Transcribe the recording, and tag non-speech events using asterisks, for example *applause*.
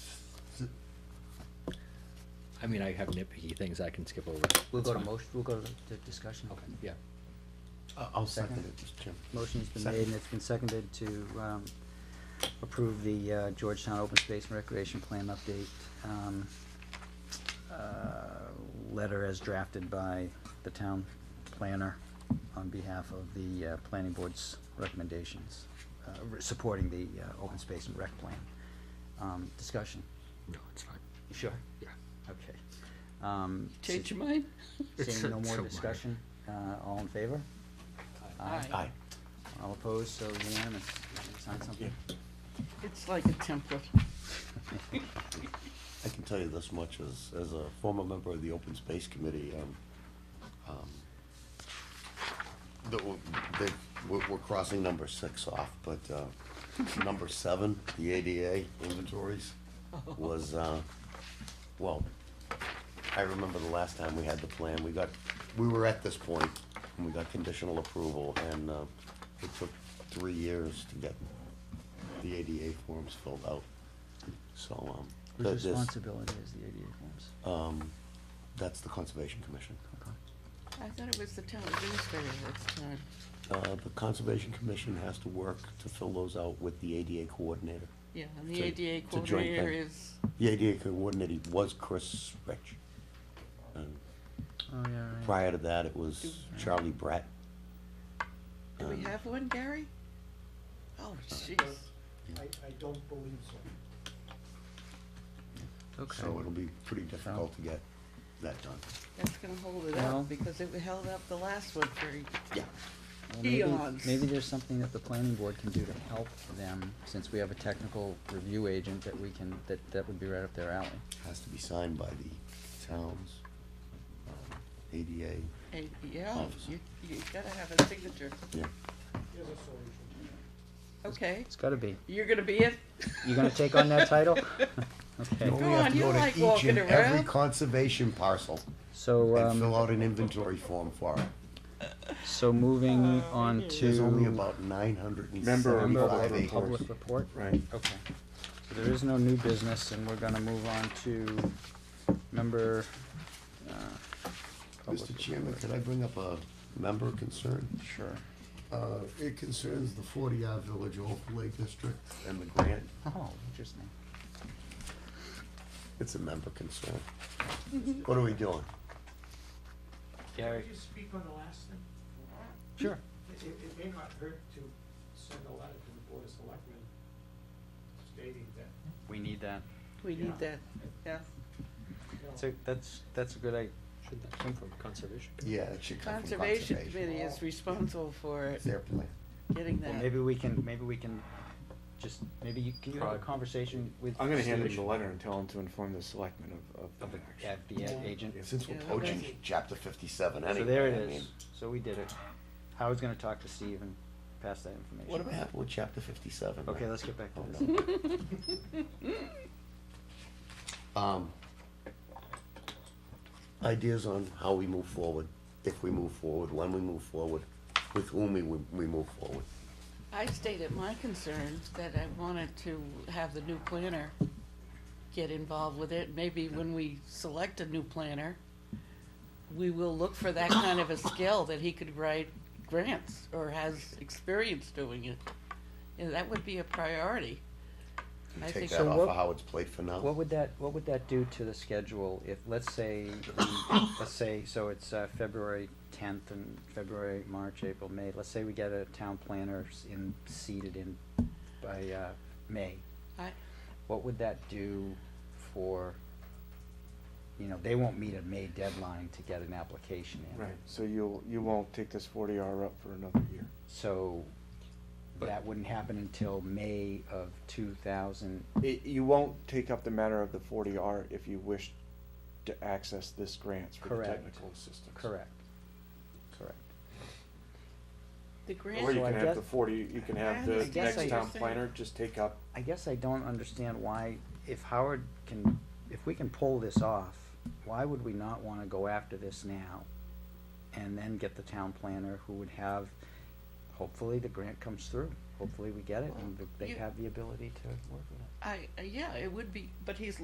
I mean, I have nitpicky things I can skip over. We'll go to fine. motion, we'll go to the discussion. Okay, yeah. Uh, I'll second Second. it, Mr. Chairman. Motion's been Second. made and it's been seconded to um, approve the uh, Georgetown Open Space and Recreation Plan update um, uh, letter as drafted by the town planner on behalf of the uh, planning board's recommendations, uh, re- supporting the uh, open space and rec plan. Um, Discussion? No, it's fine. You Sure. Yeah. Okay. Um, se- Change your mind? Seeing no more discussion, uh, all in favor? Aye. Aye. All opposed, so unanimous. Sign something? It's like a template. I can tell you this much, as, as a former member of the Open Space Committee, um, um, that we're, they, we're, we're crossing number six off, but, uh, number seven, the ADA inventories was, uh, well, I remember the last time we had the plan, we got, we were at this point, and we got conditional approval, and, uh, it took three years to get the ADA forms filled out, so, um. that Whose this- responsibility is the ADA forms? um, that's the Conservation Commission. Okay. I thought it was the town administrator this time. Uh, the Conservation Commission has to work to fill those out with the ADA coordinator. Yeah, and the So ADA it's a joint coordinator thing. is, The ADA coordinator was Chris Rich. And Oh, yeah, right. prior to that, it was Charlie Brett. do we Um, have one, Gary? Oh, jeez. I, I don't believe so. Okay. So it'll be pretty difficult to get that done. That's gonna hold it Well- up because it held up the last one for, Yeah. Well, maybe- eons. Maybe there's something that the planning board can do to help them, since we have a technical review agent that we can, that, that would be right up their alley. Has to be signed by the towns, um, ADA, eh, yeah, Office. you, you gotta have a signature. yeah. Here's a solution. Okay, It's gotta be. you're gonna be it? You gonna take on that *laughs* title? No, Okay, we Go have on, to you go to like each and walking Every around. conservation parcel so, and um, fill out an inventory form for it. so moving on to. There's only about nine hundred and Member seventy-five of acres. public report? Right. Okay, so there is no new business, and we're gonna move on to member, uh. public Mr. Chairman, report. could I bring up a member concern? Sure. Uh, it concerns the forty R Village Overlay District and the grant. Oh, interesting. It's a member concern. Mm-hmm. What are we doing? Gary? Could you speak on the last thing? Sure. It, it- it may not hurt to send a letter to the Board of Selectmen stating that, We need that. We need Yeah. that, yeah. you know, So, that's, that's a good idea. Should that come from conservation? Yeah, it should come from Conservation Committee conservation. is responsible for it, It's their plan. getting Well, that. maybe we can, maybe we can just, maybe you, can you have a Probably. conversation with? Uh, I'm gonna hand him the Stewart? letter and tell him to inform the selectmen of, of Of the the, action. of the a- agent? Since we're Yeah, poaching okay. chapter fifty-seven anyway. So there I it is, mean, so we did it. Howard's gonna talk to Steve and pass that information. What about with chapter fifty-seven? Okay, let's get back to Oh, this. no. *laughs* Um, ideas on how we move forward, if we move forward, when we move forward, with whom we, we move forward. I stated my concern that I wanted to have the new planner get involved with it. Maybe when we select a new planner, we will look for that kind of a skill that he could write grants or has experience doing it. And that would be a priority. We I Take think- that So off what- of Howard's plate for now. What would that, what would that do to the schedule if, let's say, we- let's say, so it's uh, February tenth and February, March, April, May, let's say we get a town planner s- in, seated in by, uh, May. I, What would that do for, you know, they won't meet a May deadline to get an application in. Right, so you'll, you won't take this forty R up for another year. So But- that wouldn't happen until May of two thousand, It, you won't take up the matter of the forty R if you wish to access this grant for the Correct. technical assistance. correct, correct. the Or grant, you So I can have the guess- forty, you can have I the understand what next you're town saying. planner just take up, I guess I don't understand why, if Howard can, if we can pull this off, why would we not wanna go after this now? And then get the town planner who would have, hopefully the grant comes through, hopefully we get it and they Well, you- have the ability to work with it. I, yeah, it would be, but he's